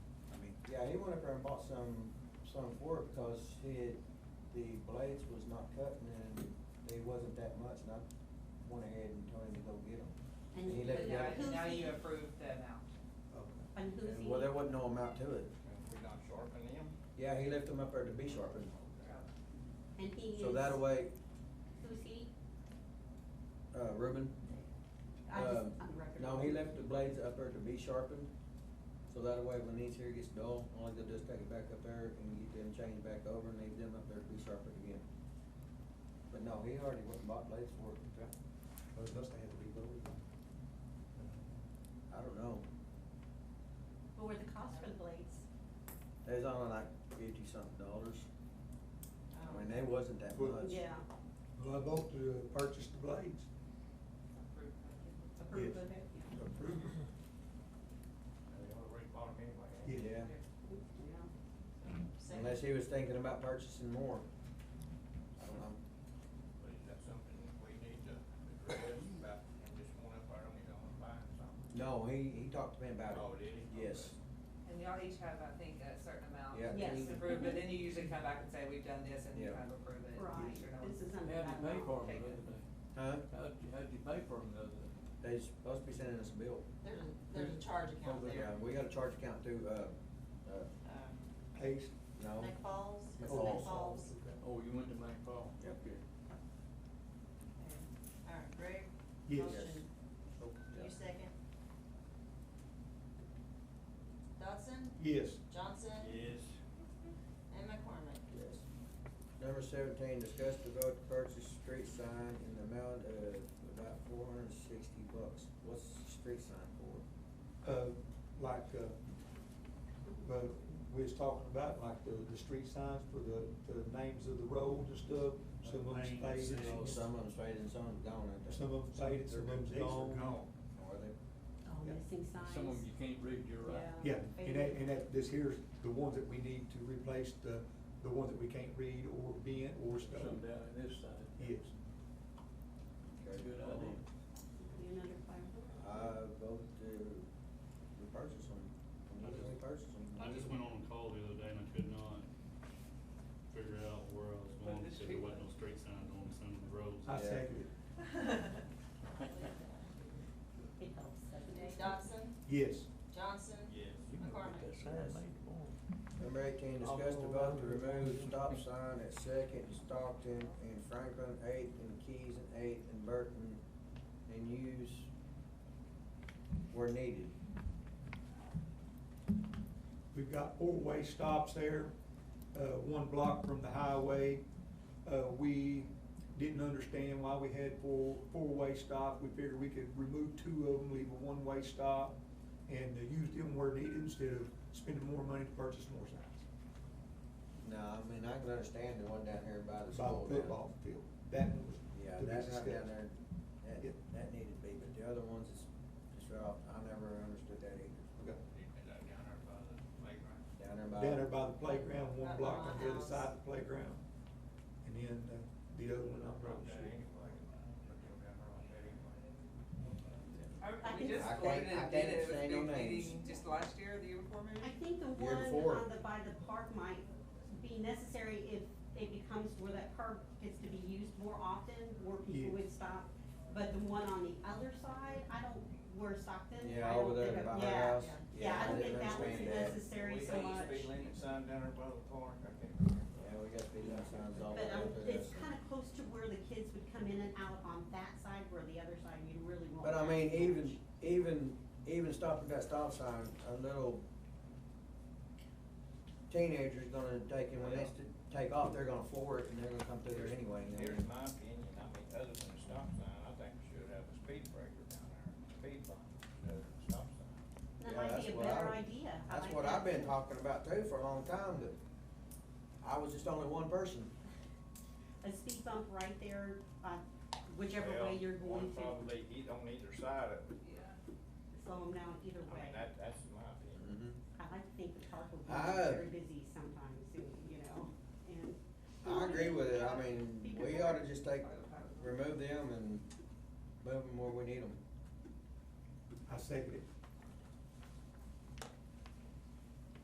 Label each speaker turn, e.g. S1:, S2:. S1: Yeah, he went up there and bought some, some for it because he had, the blades was not cutting and they wasn't that much and I went ahead and told him to go get them.
S2: And
S1: he
S2: you
S1: let
S2: put
S1: it
S2: it
S1: go.
S2: out.
S3: Now, now you approve the amount.
S2: And who's he?
S1: Well, there wasn't no amount to it.
S4: If we not sharpen them,
S1: Yeah, he left them up there to be sharpened.
S2: And he used.
S1: So that way,
S2: Who's he?
S1: uh, Reuben,
S2: I just,
S1: Um,
S2: on the record.
S1: no, he left the blades up there to be sharpened. So that way when these here gets dull, all they'll just take it back up there and get them changed back over and leave them up there to be sharpened again. But no, he already went and bought blades for it.
S5: Well, it must have had to be lowered.
S1: I don't know.
S2: What were the costs for the blades?
S1: It was only like fifty something dollars. I
S6: um,
S1: mean, they wasn't that
S5: Well-
S1: much.
S2: Yeah.
S5: Well, I vote to purchase the blades.
S3: Approve.
S2: Approve of it, yeah.
S5: Approve.
S4: they ought to re-bought them anyway. ain't
S1: Yeah,
S4: they?
S2: Yeah.
S1: unless he was thinking about purchasing more. I don't know.
S4: But is that something we need to address about, and just one up there on his own buying something?
S1: No, he, he talked to me about it.
S4: Oh, did he?
S1: Yes.
S3: And y'all each have, I think, a certain amount.
S1: Yeah.
S2: Yes.
S3: To approve, but then you usually come back and say, we've done this, and you
S1: Yeah.
S3: kind of approve it.
S2: Right.
S3: You know,
S2: This is under
S7: How'd
S2: that
S7: you pay
S2: law.
S7: for them the other day?
S1: Huh?
S7: How'd you, how'd you pay for them the other day?
S1: They supposed to be sending us a bill.
S6: There's a, there's a charge account there.
S1: Yeah, We got a charge account through, uh, uh,
S6: Um,
S5: Pace.
S1: no.
S6: Nick Falls, is it Nick
S1: McFalls.
S6: Falls?
S7: Oh, you went to Mount Paul?
S1: Yep.
S7: Okay.
S6: Okay. All right, Greg?
S5: Yes.
S6: Motion.
S1: Oh, Yeah.
S6: You second? Dodson?
S5: Yes.
S6: Johnson?
S4: Yes.
S6: And McCormick?
S1: Yes. Number seventeen, discuss the vote to purchase street sign in the amount of about four hundred and sixty bucks. What's the street sign for?
S5: Uh, like, uh, but we was talking about like the, the street signs for the, the names of the roads and stuff. Some of them
S8: Names,
S5: faded,
S8: uh,
S1: Some of them's faded, some of them's gone, ain't they?
S5: some of them faded, some of them's
S8: They're- these are
S5: gone.
S1: Are they?
S2: Oh,
S5: Yeah.
S2: missing signs.
S7: Some of them you can't read, you're right.
S5: Yeah, and that, and that, this here's the ones that we need to replace, the, the ones that we can't read or bend or stuff.
S7: Some down in this side.
S5: Yes.
S7: That's a good idea.
S2: You another fire?
S1: I vote to repurchase them. We need to repurchase them.
S8: I just went on a call the other day and I could not figure out where I was going, because there wasn't no street signs on some of the roads.
S5: I second it.
S2: It helps, doesn't it?
S6: Dodson?
S5: Yes.
S6: Johnson?
S4: Yes.
S6: McCormick?
S1: Number eighteen, discuss the vote to remove stop sign at Second, and Stockton, and Franklin, Eighth, and Keys, and Eighth, and Burton, and use where needed.
S5: We've got four-way stops there, uh, one block from the highway. Uh, we didn't understand why we had four, four-way stop. We figured we could remove two of them, leave a one-way stop, and uh, use them where needed instead of spending more money to purchase more signs.
S1: No, I mean, I can understand the one down here by the
S5: By
S1: school.
S5: the football field. That one was.
S1: Yeah,
S5: to be
S1: that right down
S5: discussed.
S1: there,
S5: Yeah.
S1: that, that needed to be, but the other ones is just right off, I never understood that either.
S5: Okay.
S4: Is that down there by the playground?
S1: Down there by.
S5: Down there by the playground,
S6: Up
S5: one
S6: by
S5: block
S6: my
S5: on the other
S6: house.
S5: side of the playground. And then, uh, the other one, I'm
S4: Broke
S5: not
S4: that
S5: sure.
S4: anyway, but they're down there on that anyway.
S2: I
S3: We
S2: think-
S3: just
S1: I can't- I
S3: voted and did
S1: can't
S3: it,
S1: say
S3: it
S1: no
S3: was a big
S1: names.
S3: meeting, just last year, the year before maybe?
S2: I think the
S1: Year
S2: one
S1: before.
S2: on the, by the park might be necessary if it becomes where that park gets to be used more often, where people
S5: Yes.
S2: would stop. But the one on the other side, I don't, where Stockton, I
S1: Yeah,
S2: don't
S1: over there
S2: think of-
S1: by my
S2: yeah.
S1: house.
S2: Yeah, I don't think
S1: didn't
S2: that was
S1: understand that.
S2: necessary
S4: We
S2: so
S4: got
S2: much.
S4: a Speed limit sign down there by the park, I can't remember.
S1: Yeah, we got speed limit signs all
S2: But
S1: over.
S2: um, it's kind of close to where the kids would come in and out on that side, where the other side, you really won't.
S1: But I
S2: have
S1: mean,
S2: so
S1: even,
S2: much.
S1: even, even stopping that stop sign, a little teenager's gonna take, and when they st- take off, they're gonna floor it, and they're gonna come through there anyway. you know.
S4: Here's my opinion, I mean, other than a stop sign, I think we should have a speed breaker down there, speed bump, other than a stop sign.
S2: That
S1: Yeah,
S2: might
S1: that's
S2: be a
S1: what I-
S2: better idea. I
S1: That's
S2: like
S1: what
S2: that
S1: I've been
S2: too.
S1: talking about too for a long time, but I was just only one person.
S2: A speed bump right there, uh, whichever
S4: Well,
S2: way you're
S4: One
S2: going to, slow
S4: probably eat on either side of it,
S3: Yeah.
S2: them down either
S4: I mean,
S2: way.
S4: that, that's my opinion.
S2: I like to think the park will be
S1: I-
S2: very busy sometime soon, you know, and.
S1: I agree with it, I mean, we ought to just take, remove them and move them where we need them.
S5: I second it.